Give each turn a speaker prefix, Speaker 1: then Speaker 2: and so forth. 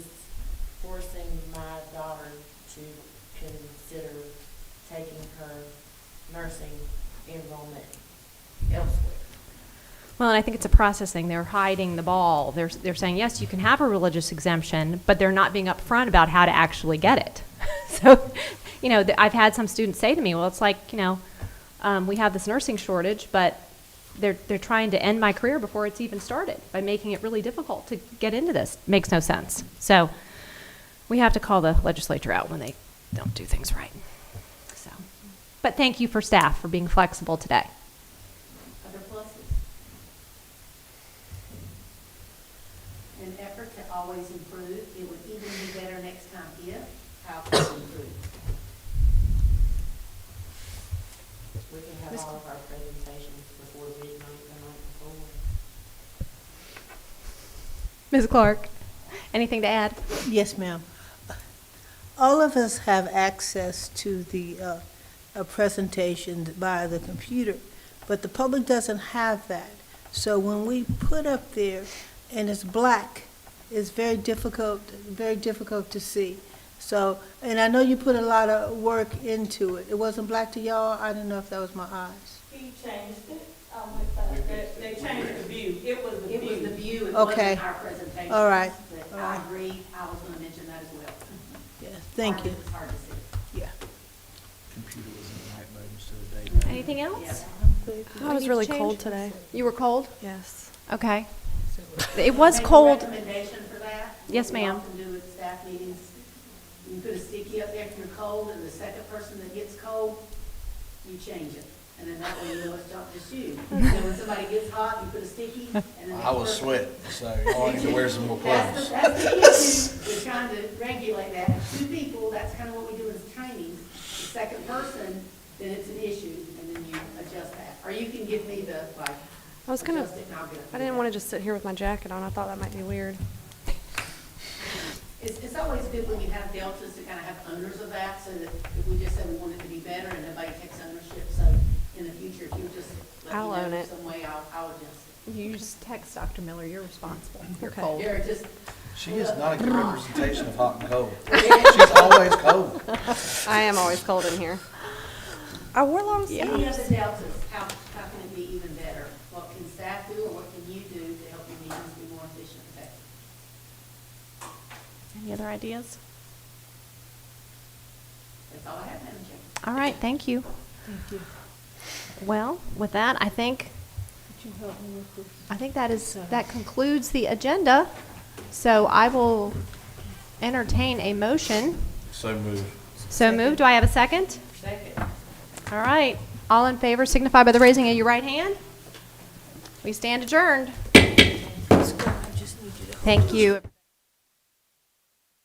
Speaker 1: to consider taking her nursing enrollment elsewhere.
Speaker 2: Well, and I think it's a process thing. They're hiding the ball. They're, they're saying, yes, you can have a religious exemption, but they're not being upfront about how to actually get it. so, you know, th- I've had some students say to me, well, it's like, you know, um, we have this nursing shortage, but they're, they're trying to end my career before it's even started by making it really difficult to get into this. Makes no sense. So we have to call the legislature out when they don't do things right. So, but thank you for staff for being flexible today.
Speaker 1: Other pluses?
Speaker 3: an effort to always improve. It would even be better next time if, how can we improve?
Speaker 1: We can have
Speaker 2: Ms.
Speaker 1: all of our presentations before midnight the night before.
Speaker 2: Ms. Clark, anything to add?
Speaker 4: Yes, ma'am. All of us have access to the uh, uh, presentation via the computer, but the public doesn't have that. So when we put up there and it's black, it's very difficult, very difficult to see. So, and I know you put a lot of work into it. It wasn't black to y'all? I don't know if that was my eyes.
Speaker 5: He changed it, um, with, uh, they, they changed the view, it was the
Speaker 3: It was the
Speaker 5: view.
Speaker 3: view, it
Speaker 4: Okay.
Speaker 3: wasn't our presentation.
Speaker 4: All right.
Speaker 3: But
Speaker 4: All
Speaker 3: I
Speaker 4: right.
Speaker 3: agree, I was gonna mention that as well.
Speaker 4: Yes, thank
Speaker 3: Hard-
Speaker 4: you.
Speaker 3: It's hard to see.
Speaker 4: Yeah.
Speaker 6: computer was in the night mode instead of day mode.
Speaker 2: Anything else?
Speaker 3: Yeah.
Speaker 7: It was really cold today.
Speaker 2: You were cold?
Speaker 7: Yes.
Speaker 2: Okay. It was
Speaker 3: Make a
Speaker 2: cold.
Speaker 3: Recommendation for that?
Speaker 2: Yes,
Speaker 3: What we
Speaker 2: ma'am.
Speaker 3: often do at staff meetings, you put a sticky up there if you're cold, and the second person that gets cold, you change it. And then that way you know it's not just you. You know, when somebody gets hot, you put a sticky, and then the
Speaker 6: I was
Speaker 3: next person-
Speaker 6: sweating, so Oh, I need to wear some more
Speaker 3: That's
Speaker 6: clothes.
Speaker 3: the, that's the issue, we're trying to regulate that. Two people, that's kind of what we do in training. The second person, then it's an issue, and then you adjust that. Or you can give me the, like,
Speaker 7: I was gonna,
Speaker 3: adjust it and I'll get it.
Speaker 7: I didn't want to just sit here with my jacket on. I thought that might be weird.
Speaker 3: It's, it's always good when you have deltas to kind of have owners of that, so that if we just say we want it to be better and nobody takes ownership, so in the future, if you just let
Speaker 7: I'll
Speaker 3: me
Speaker 7: own
Speaker 3: know
Speaker 7: it.
Speaker 3: some way, I'll, I'll adjust
Speaker 2: You just text Dr. Miller, you're responsible. You're
Speaker 7: Okay.
Speaker 3: it.
Speaker 2: cold.
Speaker 3: You're just,
Speaker 6: She is not a good representation of hot and cold. She's always cold.
Speaker 7: I am always cold in here. I wore long
Speaker 3: any
Speaker 7: sleeves.
Speaker 3: other deltas, how, how can it be even better? What can staff do, or what can you do to help your meetings be more efficient and effective?
Speaker 2: Any other ideas?
Speaker 3: That's all I have, Madam Chair.
Speaker 2: All right, thank you.
Speaker 4: Thank you.
Speaker 2: Well, with that, I think,
Speaker 4: Could you help me with this?
Speaker 2: I think that is, that concludes the agenda. So I will entertain a motion.
Speaker 6: So moved.
Speaker 2: So moved. Do I have a second?
Speaker 3: Second.
Speaker 2: All right. All in favor signify by the raising of your right hand. We stand adjourned. Thank you.